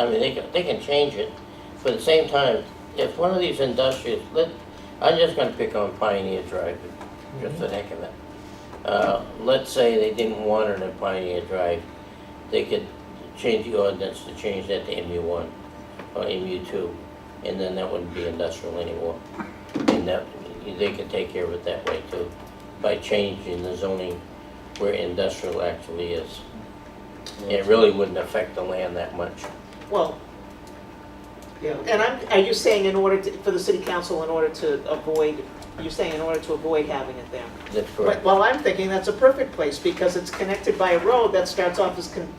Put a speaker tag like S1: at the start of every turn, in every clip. S1: I mean, they can, they can change it, but at the same time, if one of these industrious, let, I'm just gonna pick on Pioneer Drive, just for the heck of it. Uh, let's say they didn't want it in Pioneer Drive, they could change the ordinance to change that to MU one or MU two, and then that wouldn't be industrial anymore. And that, they could take care of it that way too, by changing the zoning where industrial actually is. It really wouldn't affect the land that much.
S2: Well, yeah, and I'm, are you saying in order to, for the city council, in order to avoid, you're saying in order to avoid having it there?
S1: That's
S2: But,
S1: correct.
S2: well, I'm thinking that's a perfect place, because it's connected by a road that starts off as con-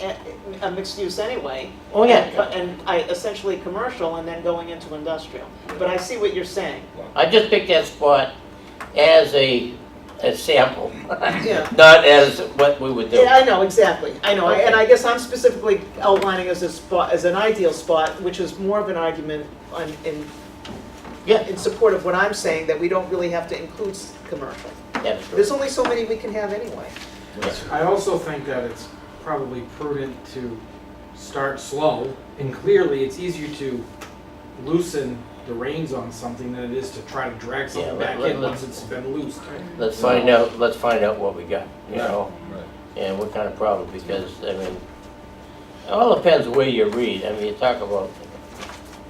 S2: a- a mixed use anyway.
S1: Oh, yeah.
S2: And I, essentially commercial and then going into industrial. But I see what you're saying.
S1: I just picked that spot as a, a sample,
S2: Yeah.
S1: not as what we would do.
S2: Yeah, I know, exactly, I know, and I guess I'm specifically outlining as a spot, as an ideal spot, which is more of an argument on, in,
S1: Yeah.
S2: in support of what I'm saying, that we don't really have to include s- commercial.
S1: That's true.
S2: There's only so many we can have anyway.
S3: I also think that it's probably prudent to start slow, and clearly, it's easier to loosen the reins on something than it is to try to drag
S1: Yeah,
S3: something
S1: let-
S3: back
S1: let-
S3: in
S1: let-
S3: once it's been loosed.
S1: Let's find out, let's find out what we got, you
S3: Right.
S1: know?
S4: Right.
S1: And what kind of problem, because, I mean, it all depends where you read. I mean, you talk about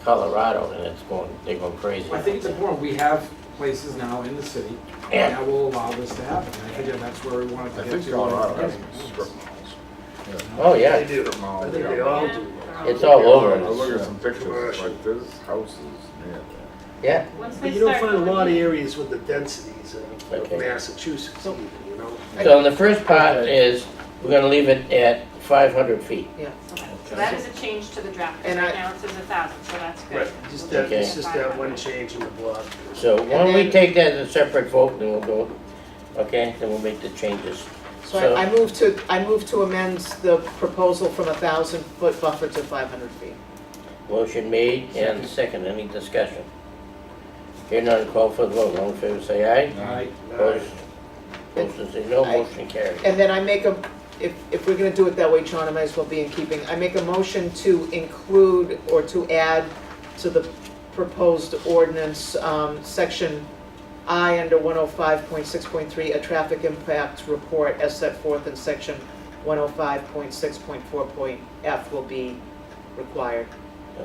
S1: Colorado and it's going, they're going crazy.
S3: I think it's important, we have places now in the city
S1: Yeah.
S3: that will allow this to happen, and I think that that's where we wanted to
S4: I
S3: get
S4: think
S3: to.
S4: Colorado has strip
S3: Yes.
S4: malls.
S1: Oh, yeah,
S5: They do. I think they all do.
S1: it's all over.
S4: I
S1: us.
S4: look at some pictures, it's like there's houses near there.
S1: Yeah,
S6: Once they
S5: But you don't
S6: start
S5: find a lot of
S6: going-
S5: areas with the densities of- of
S1: Okay.
S5: Massachusetts even, you know?
S1: so the first part is, we're gonna leave it at five hundred feet.
S6: Okay, So that is a change to the draft, 'cause
S2: And
S6: right
S2: I-
S6: now it says a thousand, so that's good.
S5: Just that,
S6: We'll take it
S1: Okay.
S5: it's
S6: to
S5: just that one
S6: 500.
S5: change in the block.
S1: So why don't
S2: And
S1: we
S2: then-
S1: take that as a separate vote, then we'll go, okay, then we'll make the changes.
S2: So
S1: So-
S2: I, I move to, I move to amend the proposal from a thousand foot buffer to five hundred feet.
S1: Motion made and second, any discussion? Here none, call for the vote, all in favor say aye.
S3: Alright.
S1: Opposed, Opposed, say no, motion carries.
S2: And then I make a, if, if we're gonna do it that way, John, I might as well be in keeping, I make a motion to include or to add to the proposed ordinance, um, section I under one oh five point six point three, a traffic impact report as set forth in section one oh five point six point four point F will be required,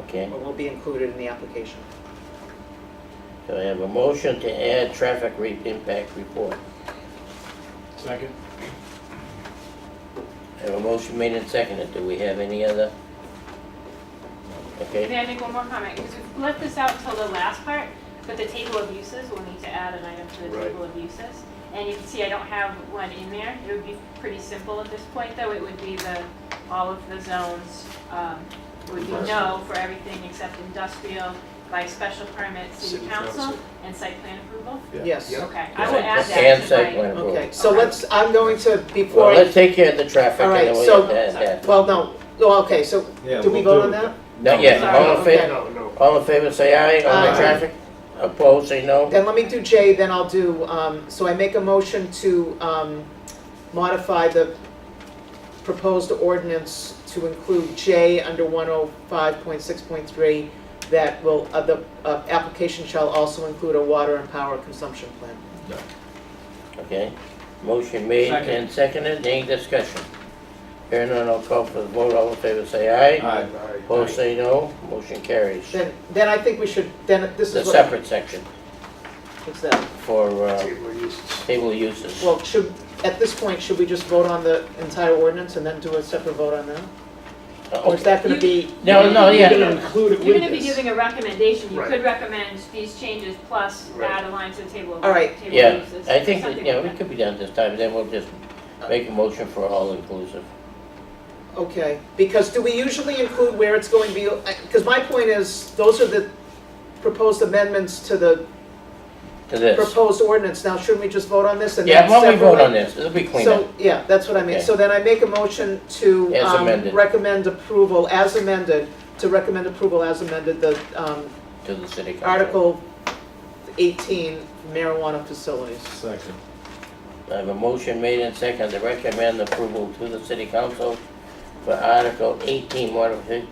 S1: Okay,
S2: or will be included in the application.
S1: so I have a motion to add traffic re- impact report.
S3: Second.
S1: I have a motion made and seconded, do we have any other? Okay,
S6: May I make one more comment? Because we've left this out till the last part, but the table of uses, we'll need to add an item to the
S5: Right.
S6: table of uses. And you can see I don't have one in there. It would be pretty simple at this point, though. It would be the, all of the zones um, would be no for everything except industrial by special permit, city
S5: City
S6: council,
S5: council.
S6: and site plan approval.
S2: Yes.
S6: Okay, I will add
S1: and site
S6: that to
S1: plan
S6: my,
S2: Okay,
S1: approval.
S2: so let's, I'm going to, before
S1: Well,
S2: I,
S1: let's take care of the traffic
S2: All
S1: and then
S2: right,
S1: we'll
S2: so-
S1: have to add that.
S2: well, no, no, okay, so, do we vote on that?
S1: Not yet,
S6: Sorry.
S1: all in
S2: Okay.
S1: favor?
S5: No, no.
S1: All in favor, say aye. On the
S2: Aye.
S1: traffic, opposed, say no.
S2: Then let me do J, then I'll do, um, so I make a motion to, um, modify the proposed ordinance to include J under one oh five point six point three, that will, uh, the, uh, application shall also include a water and power consumption plan.
S1: Okay. Motion made
S3: Second.
S1: and seconded. Any discussion? Hearing none, I'll call for the vote. All in favor, say aye.
S4: Aye.
S1: Opposed, say no. Motion carries.
S2: Then, then I think we should, then, this
S1: The
S2: is what,
S1: separate section
S2: what's that?
S1: for uh,
S5: Table uses.
S1: table uses.
S2: Well, should, at this point, should we just vote on the entire ordinance and then do a separate vote on that? Or is that gonna be,
S1: Oh. No, no,
S6: You-
S1: yeah.
S6: you're
S5: You're
S6: gonna-
S5: gonna include it with
S6: You're gonna be
S5: this.
S6: giving a recommendation. You
S5: Right.
S6: could recommend these changes plus
S5: Right.
S6: add a line to the table of,
S2: All right.
S6: table
S1: Yeah,
S6: of uses.
S1: I think, that,
S6: something
S1: yeah,
S6: like
S1: we
S6: that.
S1: could be done this time. Then we'll just make a motion for all inclusive.
S2: okay, because do we usually include where it's going to be, because my point is, those are the proposed amendments to the
S1: To this.
S2: proposed ordinance, now shouldn't we just vote on this and
S1: Yeah,
S2: then
S1: why don't
S2: separately?
S1: we vote on this? It'll be cleaner.
S2: So, yeah, that's what I mean, so then I make a motion to,
S1: As
S2: um,
S1: amended.
S2: recommend approval, as amended, to recommend approval as amended, the, um,
S1: to the city council.
S2: Article eighteen marijuana facilities.
S4: Second.
S1: I have a motion made and second to recommend approval to the city council for Article eighteen modifi-